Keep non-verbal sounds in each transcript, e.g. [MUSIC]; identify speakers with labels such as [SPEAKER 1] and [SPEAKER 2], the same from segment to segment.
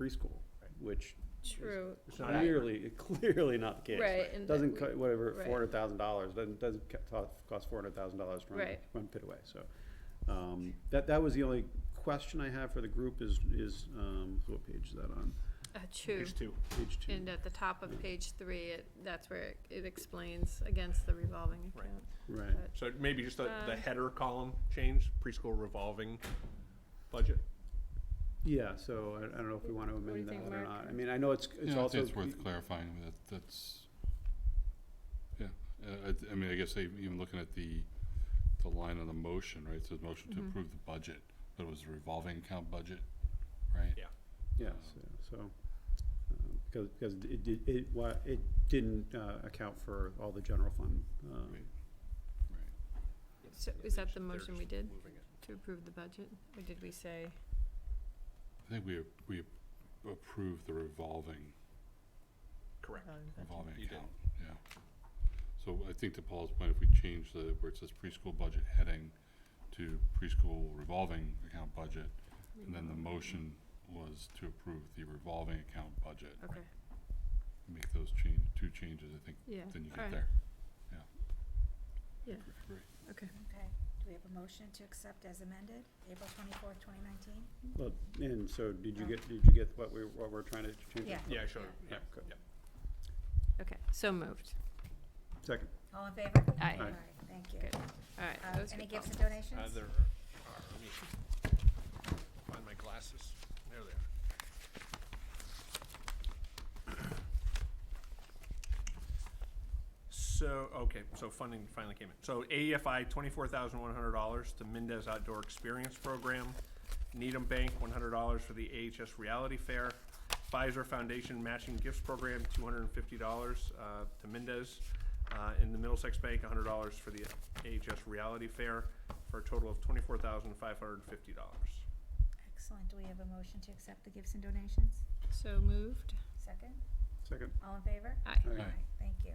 [SPEAKER 1] preschool, which
[SPEAKER 2] True,
[SPEAKER 3] It's not accurate.
[SPEAKER 1] clearly, [LAUGHS] clearly not the case.
[SPEAKER 2] right, and.
[SPEAKER 1] Doesn't,
[SPEAKER 2] we-
[SPEAKER 1] co- whatever,
[SPEAKER 2] right.
[SPEAKER 1] four hundred thousand dollars, doesn't, doesn't co- to- cost four hundred thousand dollars to run,
[SPEAKER 2] Right.
[SPEAKER 1] run Pitaway, so. Um, that, that was the only question I have for the group is, is, um, what page is that on?
[SPEAKER 2] Uh, two,
[SPEAKER 3] Page two.
[SPEAKER 1] Page two.
[SPEAKER 2] and at the top of page three, it, that's where it- it explains against the revolving
[SPEAKER 3] Right.
[SPEAKER 2] account.
[SPEAKER 1] Right,
[SPEAKER 2] but-
[SPEAKER 3] So maybe just the, the
[SPEAKER 2] Um,
[SPEAKER 3] header column change, preschool revolving budget.
[SPEAKER 1] yeah, so I, I don't know if we wanna
[SPEAKER 2] do you
[SPEAKER 1] amend that
[SPEAKER 2] think,
[SPEAKER 1] or
[SPEAKER 2] Mark?
[SPEAKER 1] not, I mean, I know it's, it's
[SPEAKER 4] Yeah, I
[SPEAKER 1] also. e,
[SPEAKER 4] think it's worth clarifying that that's, yeah, uh, I, th- I mean, I guess I even looking at the, the line on the motion, right, it says motion to
[SPEAKER 2] Mhm.
[SPEAKER 4] approve the budget, but it was a revolving account budget, right?
[SPEAKER 3] Yeah.
[SPEAKER 1] Yes, so, um, because, because it did, it, wa- it didn't, uh, account for all the general fund, um,
[SPEAKER 4] Right.
[SPEAKER 2] So is that the motion we did to approve the budget, or did we say,
[SPEAKER 4] I think we, ap- we ap- approved the revolving,
[SPEAKER 3] Correct.
[SPEAKER 4] revolving
[SPEAKER 3] You did.
[SPEAKER 4] account, yeah. So I think to Paul's point, if we change the, where it says preschool budget heading to preschool revolving account budget, and then the motion was to approve the revolving account budget.
[SPEAKER 2] okay,
[SPEAKER 4] make those change, two changes, I think,
[SPEAKER 2] yeah,
[SPEAKER 4] then you
[SPEAKER 2] Alright.
[SPEAKER 4] get there. Yeah.
[SPEAKER 2] Yeah.
[SPEAKER 4] Great.
[SPEAKER 2] okay.
[SPEAKER 5] Okay, do we have a motion to accept as amended, April twenty-fourth, twenty nineteen?
[SPEAKER 1] Well, and so did you get, did you get what we, what we're trying to change?
[SPEAKER 5] Yeah.
[SPEAKER 3] Yeah, I showed, yeah.
[SPEAKER 1] Yeah, good.
[SPEAKER 2] Okay, so moved,
[SPEAKER 1] Second,
[SPEAKER 5] All in favor?
[SPEAKER 2] Aye.
[SPEAKER 1] Aye.
[SPEAKER 5] Thank you.
[SPEAKER 2] Good. all right.
[SPEAKER 5] Uh,
[SPEAKER 2] those
[SPEAKER 5] any
[SPEAKER 2] good
[SPEAKER 5] gifts and
[SPEAKER 2] policies.
[SPEAKER 5] donations?
[SPEAKER 3] Uh, there are, let me find my glasses. There they are. So, okay, so funding finally came in. So AEFI, twenty-four thousand one hundred dollars to Mendez Outdoor Experience Program. Needham Bank, one hundred dollars for the AHS Reality Fair. Pfizer Foundation Matching Gifts Program, two hundred and fifty dollars, uh, to Mendez. Uh, and the Middlesex Bank, hundred dollars for the AHS Reality Fair, for a total of twenty-four thousand five hundred and fifty dollars.
[SPEAKER 5] Excellent, do we have a motion to accept the gifts and donations?
[SPEAKER 2] So moved,
[SPEAKER 5] Second,
[SPEAKER 1] second.
[SPEAKER 5] all in favor?
[SPEAKER 2] aye.
[SPEAKER 1] Aye.
[SPEAKER 5] Thank you.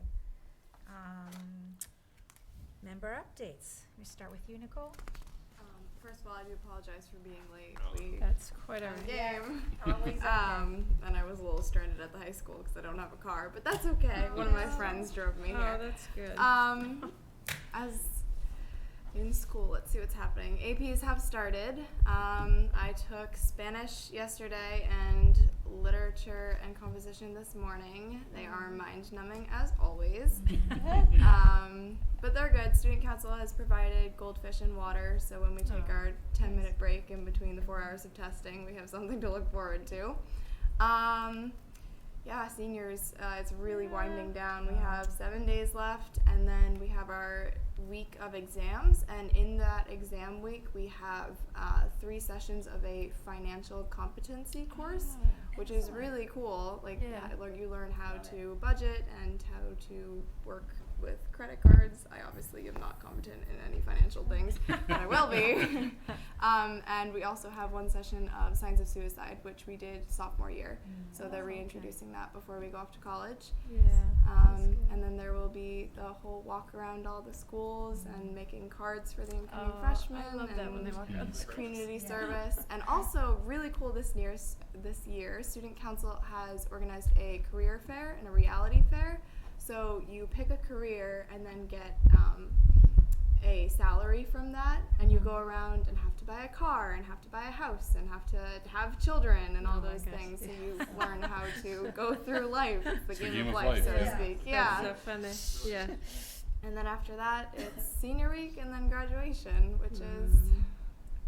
[SPEAKER 5] Um, member updates, we start with you, Nicole?
[SPEAKER 6] Um, first of all, I do apologize for being late.
[SPEAKER 3] Oh.
[SPEAKER 6] We
[SPEAKER 2] That's quite our,
[SPEAKER 6] our game.
[SPEAKER 5] Always
[SPEAKER 6] Um, and I was a little stranded at the high school because I don't have a car, but that's okay. One of my
[SPEAKER 5] Oh.
[SPEAKER 6] friends drove me
[SPEAKER 2] oh,
[SPEAKER 6] here.
[SPEAKER 2] that's good.
[SPEAKER 5] Uh,
[SPEAKER 6] Um, as in school, let's see what's happening. APs have started. Um, I took Spanish yesterday and literature and composition this morning. They are mind numbing as always. um, but they're good. Student Council has provided goldfish and water, so when we take
[SPEAKER 2] Oh,
[SPEAKER 6] our 10 minute break in between the four hours of testing, we have something to look forward to. Um, yeah, seniors, uh, it's really winding down. We have seven days left, and then we have our week of exams. And in that exam week, we have uh, three sessions of a financial competency course, which is really cool. Like,
[SPEAKER 2] Yeah.
[SPEAKER 6] I learn- you learn how to budget and how to work with credit cards. I obviously am not competent in any financial things, but I
[SPEAKER 2] [LAUGHS]
[SPEAKER 6] will be. [LAUGHS] um, and we also have one session of signs of suicide, which we did sophomore year.
[SPEAKER 2] Mm.
[SPEAKER 6] So
[SPEAKER 2] Oh,
[SPEAKER 6] they're reintroducing that before we go off to college.
[SPEAKER 2] yeah.
[SPEAKER 6] Um, and then there will be the whole walk around all the schools and making cards for the incoming
[SPEAKER 2] Oh,
[SPEAKER 6] freshmen.
[SPEAKER 2] I love that when they
[SPEAKER 6] and
[SPEAKER 2] walk around the
[SPEAKER 3] Mm.
[SPEAKER 2] screen.
[SPEAKER 6] Community
[SPEAKER 5] Yeah.
[SPEAKER 6] service, and also really cool this year. This year, student council has organized a career fair and a reality fair. So you pick a career and then get um, a salary from that, and you
[SPEAKER 2] Mm-hmm.
[SPEAKER 6] go around and have to buy a car, and have to buy a house, and have to have children, and
[SPEAKER 2] Oh
[SPEAKER 6] all
[SPEAKER 2] my
[SPEAKER 6] those
[SPEAKER 2] gosh,
[SPEAKER 6] things.
[SPEAKER 2] yeah. [LAUGHS]
[SPEAKER 6] So you learn how to go through life. It's the
[SPEAKER 4] It's
[SPEAKER 6] game, of life, so
[SPEAKER 5] yeah.
[SPEAKER 6] to speak. Yeah.
[SPEAKER 2] That's so funny, yeah.
[SPEAKER 6] And then after that, it's senior week, and then graduation, which is
[SPEAKER 2] Mm.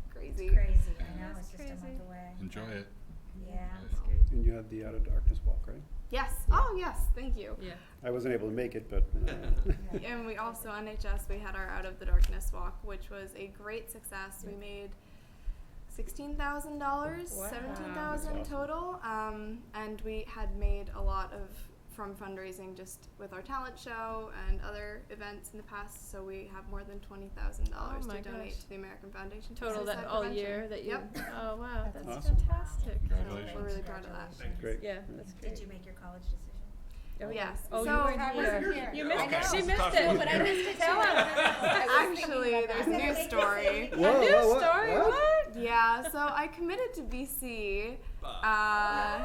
[SPEAKER 6] crazy.
[SPEAKER 5] It's crazy, I know,
[SPEAKER 2] Yeah.
[SPEAKER 5] it's just a month
[SPEAKER 2] Crazy.
[SPEAKER 5] away.
[SPEAKER 4] Enjoy it.
[SPEAKER 5] Yeah,
[SPEAKER 1] And you had the Out of Darkness Walk, right?
[SPEAKER 6] Yes. Oh, yes. Thank you.
[SPEAKER 2] Yeah.
[SPEAKER 1] I wasn't able to make it, but. uh, [LAUGHS]
[SPEAKER 5] [LAUGHS] Yeah.
[SPEAKER 6] And we also NHS we had our Out of the Darkness walk, which was a great success. We made sixteen thousand dollars,
[SPEAKER 2] Wow.
[SPEAKER 6] seventeen
[SPEAKER 1] That's
[SPEAKER 6] thousand
[SPEAKER 1] awesome.
[SPEAKER 6] total, um, and we had made a lot of from fundraising just with our talent show and other events in the past. So we have more than twenty thousand dollars
[SPEAKER 2] Oh my
[SPEAKER 6] to donate
[SPEAKER 2] gosh.
[SPEAKER 6] to the American Foundation for
[SPEAKER 2] Total that
[SPEAKER 6] Suicide
[SPEAKER 2] all
[SPEAKER 6] Prevention.
[SPEAKER 2] year that you,
[SPEAKER 6] Yep.
[SPEAKER 2] oh, wow,
[SPEAKER 5] That's
[SPEAKER 2] that's
[SPEAKER 1] awesome.
[SPEAKER 2] fantastic.
[SPEAKER 6] So we're
[SPEAKER 4] Congratulations.
[SPEAKER 6] really proud of that.
[SPEAKER 3] Thank you.
[SPEAKER 1] Great.
[SPEAKER 2] Yeah, that's
[SPEAKER 5] Did
[SPEAKER 2] great.
[SPEAKER 5] you make your college decision?
[SPEAKER 2] Oh,
[SPEAKER 6] Yes.
[SPEAKER 2] Oh, you
[SPEAKER 6] So-
[SPEAKER 2] weren't
[SPEAKER 6] I
[SPEAKER 2] here. You missed it, she missed
[SPEAKER 3] Tough.
[SPEAKER 2] it.
[SPEAKER 3] But I
[SPEAKER 5] missed it
[SPEAKER 2] Tell
[SPEAKER 6] Actually, there's
[SPEAKER 2] [LAUGHS]
[SPEAKER 6] a new story.
[SPEAKER 2] A
[SPEAKER 1] Whoa,
[SPEAKER 2] new
[SPEAKER 1] whoa, what?
[SPEAKER 2] story,
[SPEAKER 1] What?
[SPEAKER 2] what?
[SPEAKER 6] Yeah. So I committed to BC.
[SPEAKER 3] Bye.
[SPEAKER 6] Uh,